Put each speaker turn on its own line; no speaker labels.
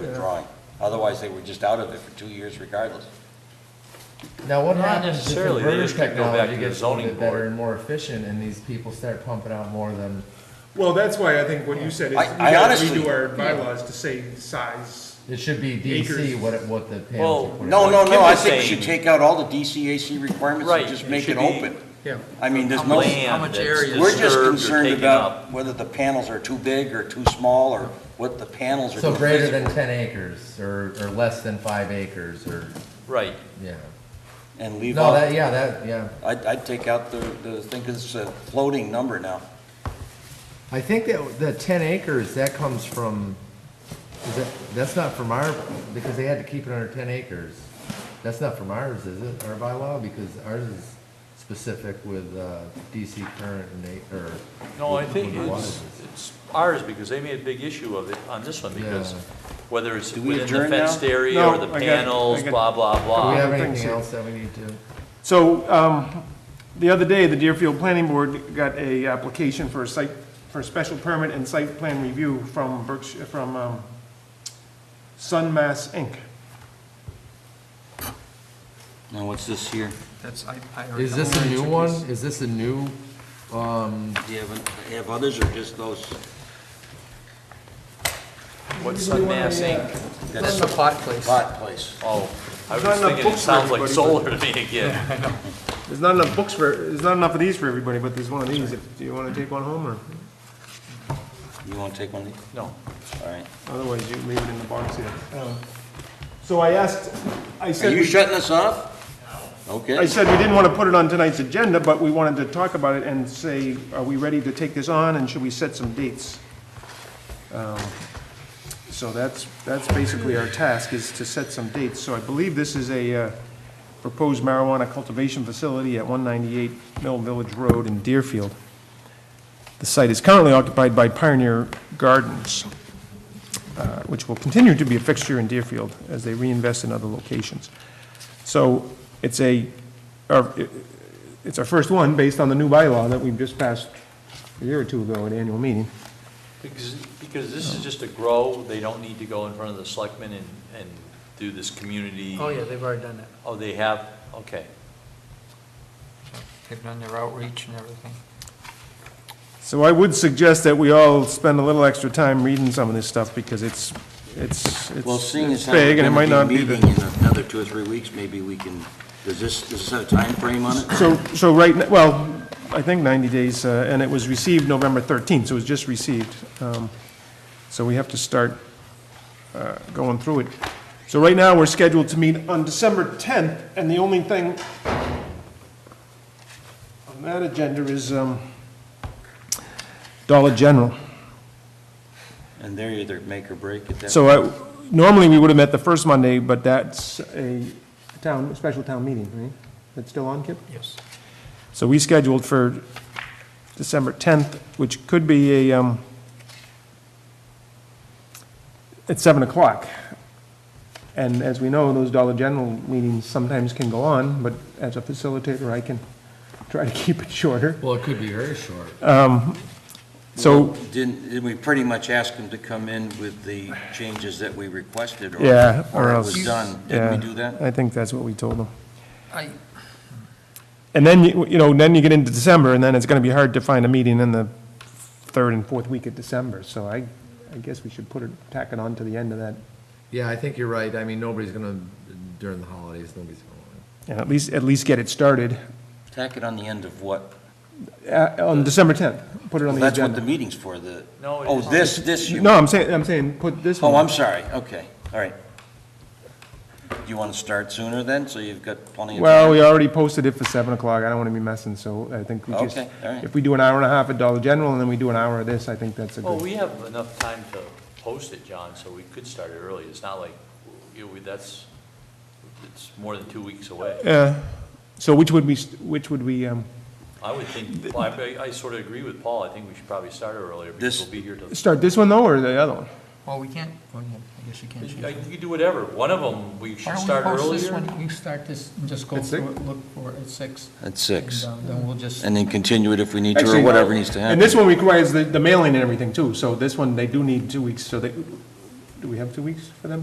the drawing. Otherwise, they were just out of it for two years regardless.
Now, what
Not
happens if the
necessarily. They
inverter
just gotta go back
technology
to the
gets a little
zoning
bit better
board.
and more efficient and these people start pumping out more than,
Well, that's why I think what you said is, we
I- I
gotta
honestly-
redo our bylaws to say size.
it should be DC
Acres.
what, it- what the panels
Well,
are putting
No,
out.
no,
Kim
no, I
was
think we should
saying-
take out all the DCAC requirements
Right,
and just
it
make
should
it
be-
open.
Yeah.
I mean, there's no,
Land
much
that's
area is
we're just
disturbed or
concerned
taken up.
about whether the panels are too big or too small or what the panels are.
So
doing
greater than
physically.
ten acres or, or less than five acres or,
Right,
yeah.
And leave
No, that,
out,
yeah, that, yeah.
I'd, I'd take out the, the thing, 'cause it's a floating number now.
I think that the ten acres, that comes from, is that, that's not from our, because they had to keep it under ten acres. That's not from ours, is it, our bylaw? Because ours is specific with, uh, DC current and they, or.
no, I
with-
think
with
it's,
wattage.
it's ours, because they made a big issue of it on this one, because
Yeah.
whether it's
Do we
within the
adjourn now?
fenced area or the
No, I got- I
panels,
got-
blah, blah,
Do we
blah.
have
I think
anything
so.
else that we need to?
So, um, the other day, the Deerfield Planning Board got a application for a site, for a special permit and site plan review from Berkshire, from, um, Sunmass Inc.
Now, what's this here?
That's, I, I heard.
Is
that.
this a new one? Is this a new, um,
Do you have, have others or just those?
What's Sunmass Inc.?
That's
That's
the pot place.
Lot place.
Oh, I was
not enough
thinking, it
books for
sounds like
everybody,
solar to me again.
There's not enough books for, there's not enough of these for everybody, but there's one of these, if, do you wanna take one home, or
You wanna take one of these?
No,
All right.
otherwise you leave it in the box here? Um, So I asked, I
Are
said.
you
we-
shutting us off?
I
Okay.
said we didn't want to put it on tonight's agenda, but we wanted to talk about it and say, are we ready to take this on, and should we set some dates? Um, So that's, that's basically our task, is to set some dates. So I believe this is a uh, proposed marijuana cultivation facility at 198 Mill Village Road in Deerfield. The site is currently occupied by Pioneer Gardens, uh, which will continue to be a fixture in Deerfield as they reinvest in other locations. So it's a, or, it- it's our first one based on the new bylaw that we've just passed a year or two ago at annual meeting.
because, because this is just a grow, they don't need to go in front of the selectmen and, and do this community.
Oh, yeah, they've already done that.
Oh, they have, okay.
They've done their outreach and everything.
So I would suggest that we all spend a little extra time reading some of this stuff because it's, it's,
Well,
it's
seeing as
it's
how we're
big and it might
gonna
not
be
be
meeting
the.
in another two or three weeks, maybe we can, does this, does this have a timeframe on it?
So, so right, n- well, I think 90 days, uh, and it was received November 13th, so it was just received. Um, So we have to start uh, going through it. So right now, we're scheduled to meet on December 10th, and the only thing on that agenda is um, Dollar General.
And they're either make or break at that.
So I- normally, we would have met the first Monday, but that's a town, special town meeting, right? That's still on, Kip?
Yes.
So we scheduled for December 10th, which could be a, um, at 7 o'clock. And as we know, those Dollar General meetings sometimes can go on, but as a facilitator, I can try to keep it shorter.
well, it could be very short.
So,
Didn't, didn't we pretty much ask them to come in with the changes that we requested? or-
yeah,
Or
or
it
else.
was done? Didn't we
Yeah,
do that?
I think that's what we told them.
I,
And then, you you know, then you get into December, and then it's going to be hard to find a meeting in the third and fourth week of December. So I, I guess we should put it, tack it on to the end of that
Yeah, I think you're right. I mean, nobody's gonna, during the holidays, nobody's gonna want it.
And at least, at least get it started
Tack it on the end of what?
uh, on December 10th. Put it on the
That's what the
agenda.
meeting's for, the,
No, it
oh,
is-
this, this you.
No, I'm saying, I'm saying, put this one.
Oh, I'm sorry, okay, all right. Do you want to start sooner then, so you've got plenty of?
Well, we already posted it for 7 o'clock. I don't want to be messing, so I think we just.
Okay, all right.
If we do an hour and a half at Dollar General and then we do an hour of this, I think that's a
Well,
good.
we have enough time to post it, John, so we could start it early. It's not like, you know, we- that's, it's more than two weeks away.
Uh, So which would we, st- which would we, um,
I would think, well, I, I sort of agree with Paul. I think we should probably start it earlier
This-
because we'll be here till,
start this one though, or the other one?
well, we can't, well, I guess you can't change.
I-
it.
you can do whatever. One of them, we
Why
should
don't we
start
post this
earlier.
one, we start this and just go
At six?
through it, look for it at six.
At six,
and, um, Then we'll just,
and then continue it if we need to,
Actually,
or
no.
whatever needs to happen.
And this one requires the the mailing and everything too, so this one, they do need two weeks, so they, do we have two weeks for them?